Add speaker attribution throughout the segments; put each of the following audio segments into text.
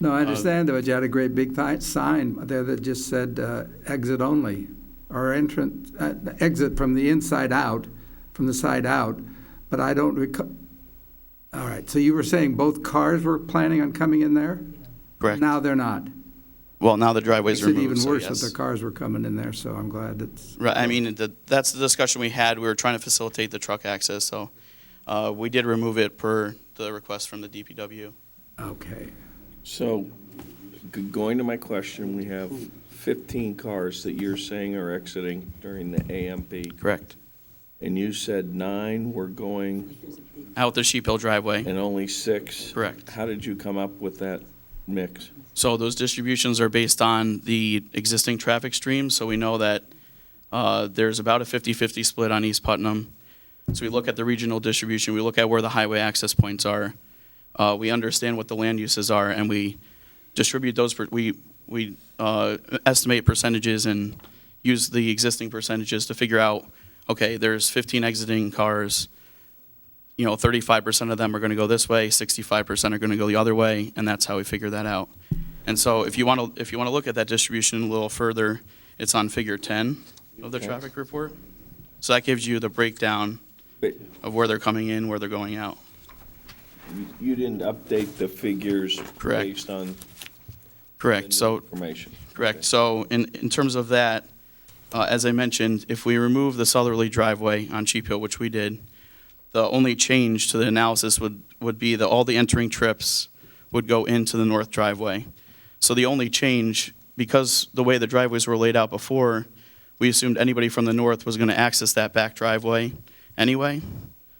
Speaker 1: No,
Speaker 2: Uh,
Speaker 1: I understand, but you had a great big thi- sign there that just said uh, exit only, or entrance, uh, exit from the inside out, from the side out, but I don't recall, all right, so you were saying both cars were planning on coming in there?
Speaker 2: Correct.
Speaker 1: Now they're not.
Speaker 2: Well, now the driveway's
Speaker 1: Makes it
Speaker 2: removed,
Speaker 1: even
Speaker 2: so
Speaker 1: worse that
Speaker 2: yes.
Speaker 1: the cars were coming in there, so I'm glad that's,
Speaker 2: Right, I mean, the- that's the discussion we had. We were trying to facilitate the truck access, so uh, we did remove it per the request from the DPW.
Speaker 1: okay.
Speaker 3: So, g- going to my question, we have 15 cars that you're saying are exiting during the AMP,
Speaker 2: Correct.
Speaker 3: and you said nine were going
Speaker 2: Out the Sheep Hill driveway.
Speaker 3: and only six?
Speaker 2: Correct.
Speaker 3: How did you come up with that mix?
Speaker 2: So those distributions are based on the existing traffic stream, so we know that uh, there's about a 50-50 split on East Putnam. So we look at the regional distribution, we look at where the highway access points are, uh, we understand what the land uses are, and we distribute those, per- we, we uh, estimate percentages and use the existing percentages to figure out, okay, there's 15 exiting cars, you know, 35% of them are going to go this way, 65% are going to go the other way, and that's how we figure that out. And so if you want to, if you want to look at that distribution a little further, it's on figure 10 of the
Speaker 3: Okay.
Speaker 2: traffic report. So that gives you the breakdown
Speaker 3: But
Speaker 2: of where they're coming in, where they're going out.
Speaker 3: you- you didn't update the figures
Speaker 2: Correct.
Speaker 3: based on the new
Speaker 2: Correct, so,
Speaker 3: information?
Speaker 2: correct. So in, in terms of that, uh, as I mentioned, if we remove the southerly driveway on Sheep Hill, which we did, the only change to the analysis would, would be that all the entering trips would go into the north driveway. So the only change, because the way the driveways were laid out before, we assumed anybody from the north was going to access that back driveway anyway.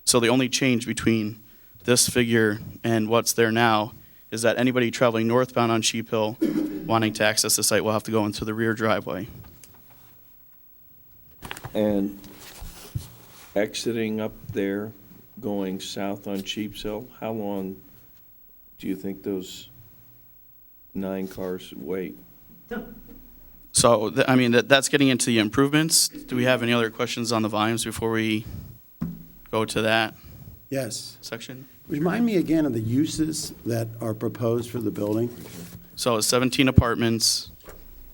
Speaker 2: So the only change between this figure and what's there now is that anybody traveling northbound on Sheep Hill wanting to access the site will have to go into the rear driveway.
Speaker 3: And exiting up there, going south on Sheep's Hill, how long do you think those nine cars wait?
Speaker 2: So, th- I mean, that, that's getting into the improvements. Do we have any other questions on the volumes before we go to that
Speaker 4: Yes.
Speaker 2: section?
Speaker 4: Remind me again of the uses that are proposed for the building.
Speaker 2: So 17 apartments,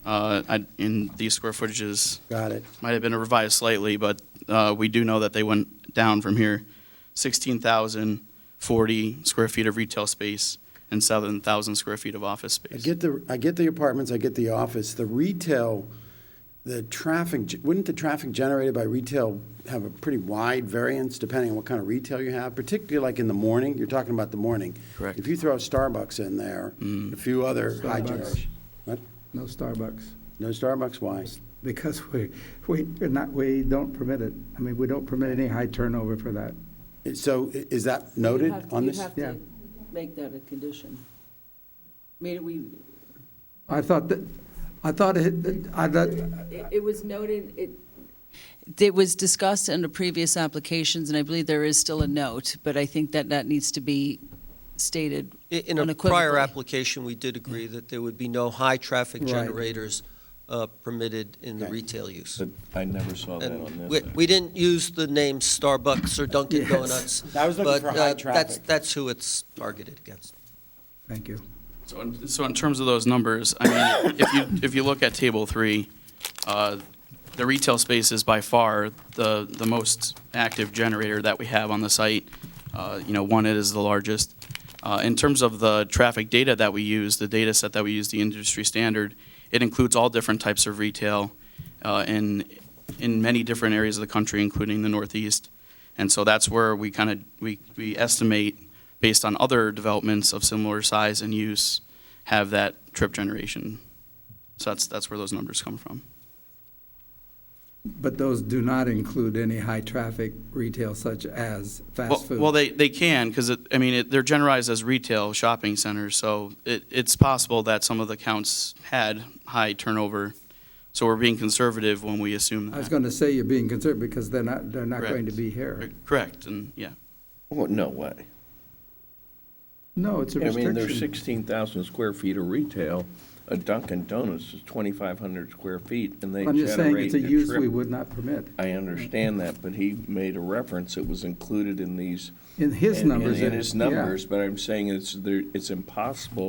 Speaker 2: uh, I- in these square footages,
Speaker 4: Got it.
Speaker 2: might have been revised slightly, but uh, we do know that they went down from here. 16,040 square feet of retail space and 7,000 square feet of office
Speaker 4: I
Speaker 2: space.
Speaker 4: get the, I get the apartments, I get the office, the retail, the traffic, ge- wouldn't the traffic generated by retail have a pretty wide variance depending on what kind of retail you have, particularly like in the morning? You're talking about the morning.
Speaker 2: Correct.
Speaker 4: If you throw Starbucks in there, a few other high
Speaker 1: Starbucks.
Speaker 4: generation. What?
Speaker 1: No Starbucks,
Speaker 4: No Starbucks, why?
Speaker 1: because we, we, we're not, we don't permit it. I mean, we don't permit any high turnover for that.
Speaker 4: So i- is that
Speaker 5: You
Speaker 4: noted
Speaker 5: have-
Speaker 4: on this?
Speaker 5: You have
Speaker 1: Yeah.
Speaker 5: to make that a condition. I mean, we,
Speaker 1: I thought that, I thought it, I thought,
Speaker 5: it- it was noted, it, it was discussed under previous applications, and I believe there is still a note, but I think that that needs to be stated
Speaker 6: I- In a prior
Speaker 5: Unequivocally.
Speaker 6: application, we did agree that there would be no high-traffic
Speaker 1: Right.
Speaker 6: generators uh, permitted in the
Speaker 4: Okay.
Speaker 6: retail use.
Speaker 3: But I never saw that on
Speaker 6: And we
Speaker 3: this.
Speaker 6: we didn't use the name Starbucks or Dunkin'
Speaker 1: Yes.
Speaker 6: Donuts.
Speaker 4: I was looking for
Speaker 6: but, uh,
Speaker 4: high
Speaker 6: that's-
Speaker 4: traffic.
Speaker 6: That's who it's targeted against.
Speaker 1: thank you.
Speaker 2: So in, so in terms of those numbers, I mean, if you, if you look at table three, uh, the retail space is by far the, the most active generator that we have on the site. Uh, You know, one, it is the largest. Uh, In terms of the traffic data that we use, the data set that we use, the industry standard, it includes all different types of retail uh, in, in many different areas of the country, including the Northeast. And so that's where we kind of, we, we estimate, based on other developments of similar size and use, have that trip generation. So that's, that's where those numbers come from.
Speaker 1: But those do not include any high-traffic retail such as
Speaker 2: Well,
Speaker 1: fast food.
Speaker 2: well, they, they can, because, I mean, it- they're generalized as retail shopping centers, so it, it's possible that some of the counts had high turnover. So we're being conservative when we assume
Speaker 1: I was
Speaker 2: that.
Speaker 1: going to say you're being concerned because they're not, they're not going to
Speaker 2: Correct.
Speaker 1: be here.
Speaker 2: Correct, and, yeah.
Speaker 3: Oh, no way.
Speaker 1: No, it's a
Speaker 3: I mean, there's
Speaker 1: restriction.
Speaker 3: 16,000 square feet of retail. A Dunkin' Donuts is 2,500 square feet, and they
Speaker 1: I'm just saying
Speaker 3: generate
Speaker 1: it's a
Speaker 3: a
Speaker 1: use we
Speaker 3: trip.
Speaker 1: would not permit.
Speaker 3: I understand that, but he made a reference. It was included in these.
Speaker 1: In his
Speaker 3: in- in-
Speaker 1: numbers,
Speaker 3: In
Speaker 1: it-
Speaker 3: his
Speaker 1: yeah.
Speaker 3: numbers, but I'm saying it's, there- it's impossible